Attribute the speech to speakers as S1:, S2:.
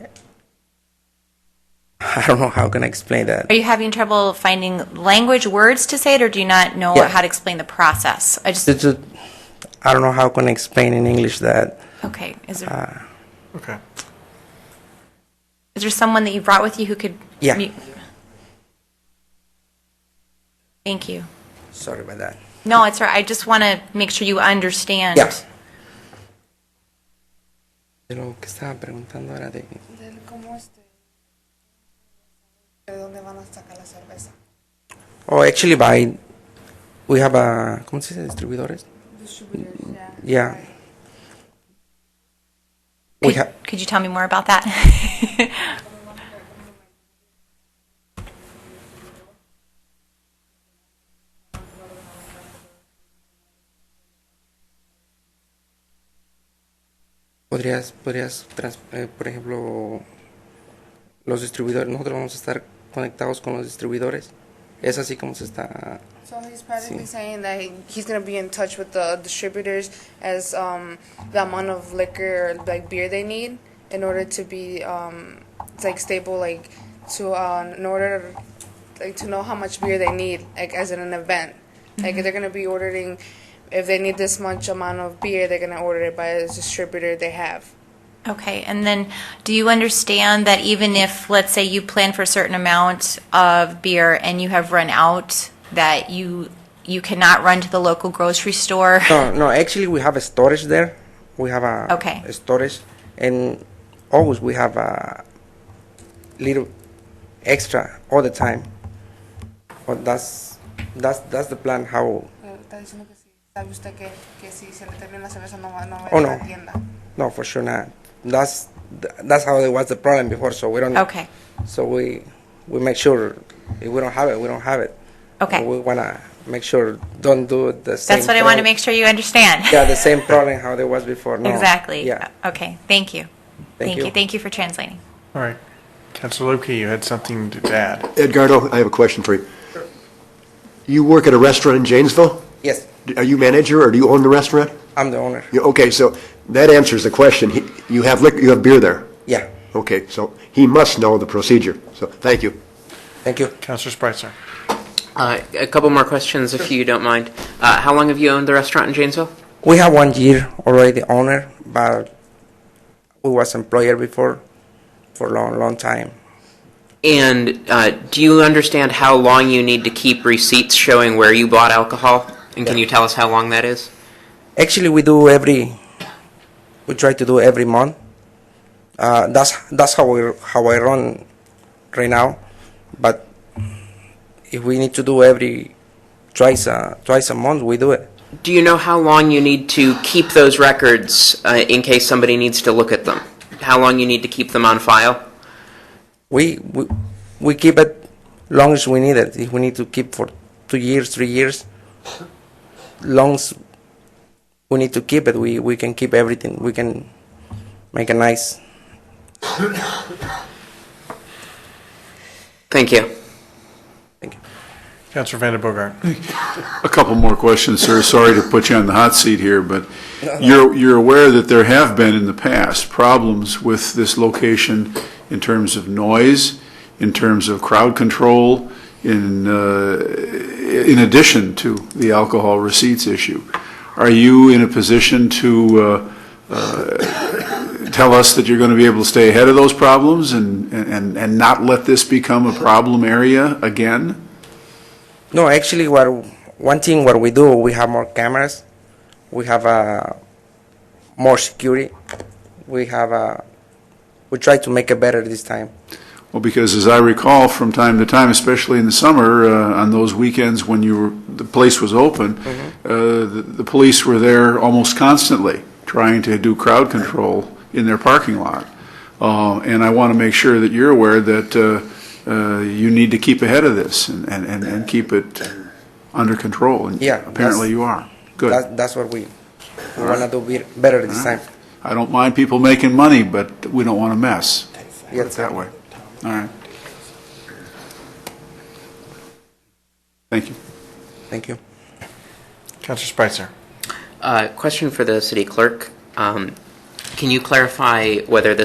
S1: I don't know how can I explain that.
S2: Are you having trouble finding language, words to say it, or do you not know
S1: Yeah.
S2: how to explain the process? I just,
S1: It's just, I don't know how can I explain in English that.
S2: okay. Is there,
S3: Okay.
S2: is there someone that you brought with you who could?
S1: Yeah.
S2: mu- Thank you.
S1: Sorry about that.
S2: No, it's all right. I just want to make sure you understand.
S1: Yeah. De lo que estaba preguntando era de
S4: del cómo este de dónde van a sacar la cerveza
S1: Oh, actually, by we have a ¿cómo se dice? Distribuidores. Yeah. We
S2: Could,
S1: have
S2: could you tell me more about that?
S1: podrías podrías trans- eh, por ejemplo los distribuidores. Nosotros vamos a estar conectados con los distribuidores. Es así como se está.
S4: so he's practically saying that he, he's gonna be in touch with the distributors as um the amount of liquor or like beer they need in order to be um it's like stable like to um in order like to know how much beer they need like as in an event like they're gonna be ordering if they need this much amount of beer they're gonna order it by a distributor they have
S2: okay. And then, do you understand that even if, let's say, you plan for a certain amount of beer and you have run out, that you you cannot run to the local grocery store?
S1: No, no. Actually, we have a storage there. We have a,
S2: Okay.
S1: a storage, and always we have a little extra all the time. But that's that's that's the plan. How?
S4: Pero está diciendo que sí. ¿Sabe usted que, que si se le termina la cerveza no va, no va
S1: Oh,
S4: a ir a
S1: no.
S4: la tienda?
S1: No, for sure not. That's th- that's how it was the problem before. So we don't.
S2: Okay.
S1: So we we make sure if we don't have it, we don't have it.
S2: Okay.
S1: we wanna make sure don't do the same.
S2: That's what I want to
S1: prob-
S2: make sure you understand.
S1: Yeah, the same problem how there was before. No.
S2: Exactly. Uh,
S1: Yeah.
S2: Okay, thank you. Thank you,
S1: you.
S2: thank you for translating.
S3: All right. Councilor Lupke, you had something to add.
S5: Edgardo, I have a question for you. You work at a restaurant in Janesville?
S1: Yes,
S5: Are you manager or do you own the restaurant?
S1: I'm the owner.
S5: You- Okay, so that answers the question. He- You have liquor, you have beer there?
S1: Yeah.
S5: Okay, so he must know the procedure, so thank you.
S1: Thank you.
S3: Councilor Spitzer.
S6: Uh, a couple more questions, if you don't mind. Uh, how long have you owned the restaurant in Janesville?
S1: We have one year already owner, but we was employer before for long, long time.
S6: And uh, do you understand how long you need to keep receipts showing where you bought alcohol? And can you tell us how long that is?
S1: Actually, we do every, we try to do every month. Uh, that's that's how we how I run right now. But if we need to do every twice a, twice a month, we do it.
S6: Do you know how long you need to keep those records uh, in case somebody needs to look at them? How long you need to keep them on file?
S1: We we, we keep it long as we need it. If we need to keep for two years, three years, long as we need to keep it, we, we can keep everything. We can make a nice.
S6: Thank you.
S1: Thank you.
S3: Councilor Vanda Bogart.
S7: A couple more questions, sir. Sorry to put you on the hot seat here, but you're, you're aware that there have been in the past problems with this location in terms of noise, in terms of crowd control, in, uh, in addition to the alcohol receipts issue. Are you in a position to, uh, uh, tell us that you're going to be able to stay ahead of those problems and, and, and not let this become a problem area again?
S1: No, actually, what one thing what we do, we have more cameras, we have uh, more security, we have uh, we try to make it better this time.
S7: Well, because as I recall, from time to time, especially in the summer, uh, on those weekends when you were, the place was open,
S1: Mm-hmm.
S7: uh, the, the police were there almost constantly trying to do crowd control in their parking lot. Uh, and I want to make sure that you're aware that uh, uh, you need to keep ahead of this and, and, and, and keep it under control. And
S1: Yeah, that's-
S7: apparently you are. Good.
S1: That, that's what we, we wanna do be- better this time.
S7: I don't mind people making money, but we don't want to mess. Put it
S1: Yes.
S7: that way. All right. Thank you.
S1: Thank you.
S3: Councilor Spitzer.
S6: Uh, question for the city clerk. Um, can you clarify whether this